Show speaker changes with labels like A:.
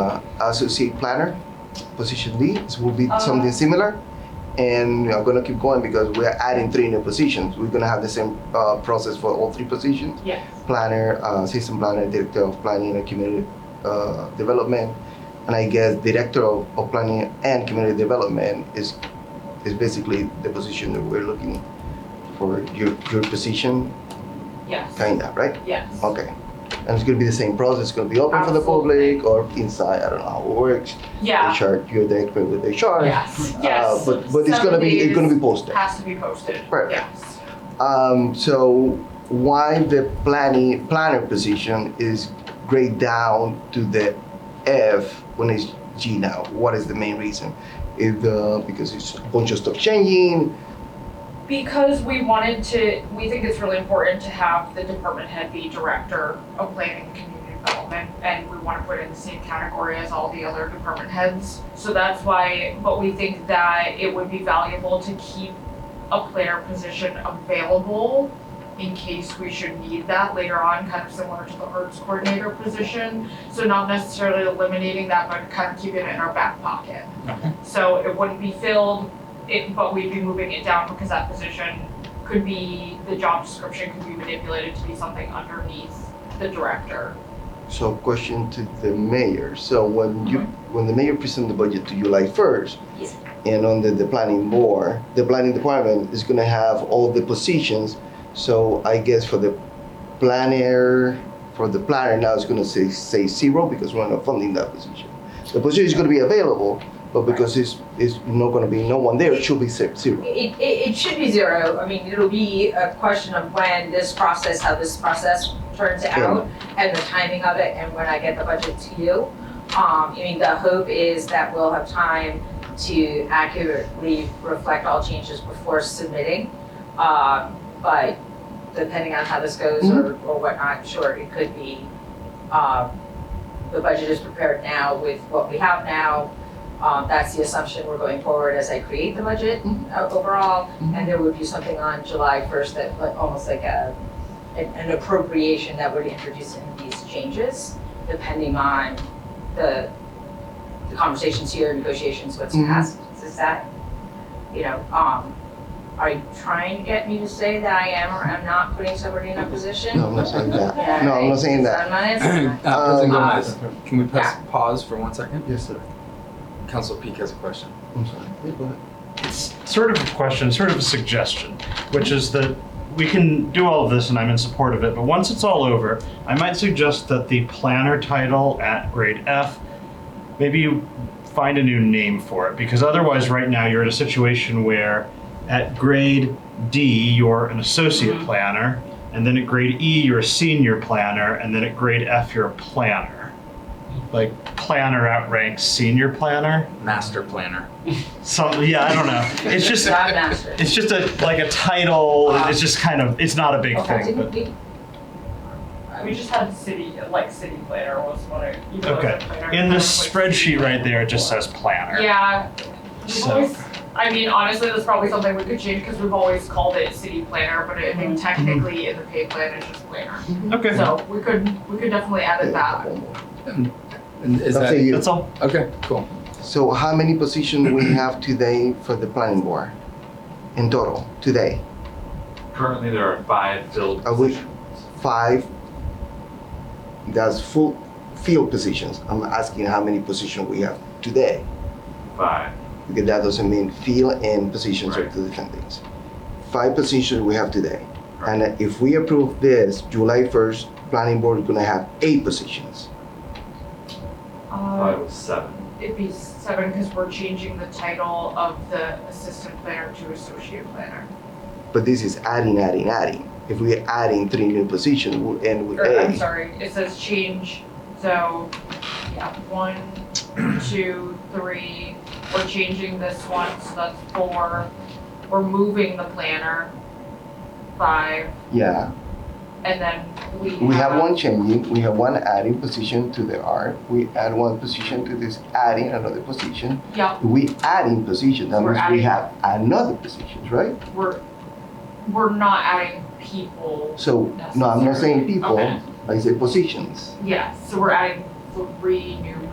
A: uh, associate planner, position D. This will be something similar. And we are going to keep going because we are adding three new positions. We're going to have the same uh, process for all three positions
B: Yes.
A: planner, uh, system planner, director of planning and community uh, development, and I guess director of, of planning and community development is is basically the position that we're looking for your your position,
B: Yes.
A: kinda right?
B: Yes.
A: Okay, and it's gonna be the same process. It's gonna be open for the public or inside. I don't know how it works.
B: Yeah.
A: HR, you're the expert with HR.
B: Yes.
A: Uh,
B: Yes.
A: but but it's gonna be it's gonna be posted.
B: Has to be posted.
A: Right.
B: Yes.
A: Um, so why the planning planner position is grade down to the F when it's G now? What is the main reason? Is uh, because it's a bunch of stuff changing.
B: Because we wanted to, we think it's really important to have the department head be director of planning and community development, and we want to put it in the same category as all the other department heads. So that's why, but we think that it would be valuable to keep a planner position available in case we should need that later on, kind of similar to the arts coordinator position. So not necessarily eliminating that, but kind of keeping it in our back pocket. So it wouldn't be filled, it, but we'd be moving it down because that position could be, the job description could be manipulated to be something underneath the director.
A: So question to the mayor. So when you when the mayor presents the budget to July first,
B: Yes.
A: and under the planning board, the planning department is gonna have all the positions. So I guess for the planner, for the planner now it's gonna say say zero because we're not funding that position. The position is gonna be available, but because it's it's not gonna be no one there, it should be ze- zero.
C: It, it, it should be zero. I mean, it'll be a question of when this process, how this process turns out and the timing of it and when I get the budget to you. Um, I mean, the hope is that we'll have time to accurately reflect all changes before submitting. Um, but depending on how this goes or, or whatnot, sure, it could be, um, the budget is prepared now with what we have now, um, that's the assumption we're going forward as I create the budget uh, overall. And there would be something on July first that, like, almost like a, an an appropriation that would introduce in these changes, depending on the, the conversations here, negotiations, what's
A: Mhm.
C: passed, is that, you know, um, are you trying to get me to say that I am or am not putting somebody in a position?
A: No, I'm not saying that.
C: Yeah,
A: No, I'm not
C: right.
A: saying that.
C: So I'm not answering
D: Uh,
C: that. Um,
D: President Gomez, can we press pause for one second?
A: Yes, sir.
D: Council Peak has a question.
A: I'm sorry. Yeah, go ahead.
E: it's sort of a question, sort of a suggestion, which is that we can do all of this and I'm in support of it, but once it's all over, I might suggest that the planner title at grade F, maybe you find a new name for it, because otherwise, right now, you're in a situation where at grade D, you're an associate planner, and then at grade E, you're a senior planner, and then at grade F, you're a planner. Like, planner outranks senior planner.
D: Master planner.
E: So yeah, I don't know. It's just
C: Job master.
E: it's just a like a title. and It's just kind of it's not a big
C: Okay,
E: thing.
C: didn't
E: But,
C: we?
B: Uh, We just had city, like city planner was what I, even though it's a planner.
E: okay. In this spreadsheet right there, it just says planner.
B: Yeah, we've
E: So-
B: always, I mean, honestly, that's probably something we could change because we've always called it city planner, but I think technically in the pay plan, it's just planner.
E: Okay.
B: So we could, we could definitely add it
A: Yeah,
B: that.
A: one more.
D: And is
A: I'll say
D: that,
A: you.
E: That's all.
D: okay, cool.
A: So how many positions we have today for the planning board in total today?
F: Currently, there are five filled
A: I would-
F: positions.
A: five. That's full field positions. I'm asking how many positions we have today.
F: Five.
A: Because that doesn't mean field and positions are
F: Right.
A: two different things. Five positions we have today. And if we approve this, July first, planning board is gonna have eight positions.
B: Uh, Um,
F: Five was seven.
B: It'd be seven because we're changing the title of the assistant planner to associate planner.
A: But this is adding, adding, adding. If we're adding three new positions, we'll end with
B: Or, I'm
A: eight.
B: sorry, it says change, so, yeah, one, two, three, we're changing this one, so that's four. We're moving the planner, five,
A: Yeah,
B: and then we
A: we have one changing, we have one adding position to the art. We add one position to this, adding another position.
B: Yeah,
A: we adding positions, that
B: We're
A: means we
B: adding-
A: have another positions, right?
B: we're, we're not adding people,
A: So, no, I'm not saying people,
B: Okay.
A: I say positions.
B: yeah, so we're adding three new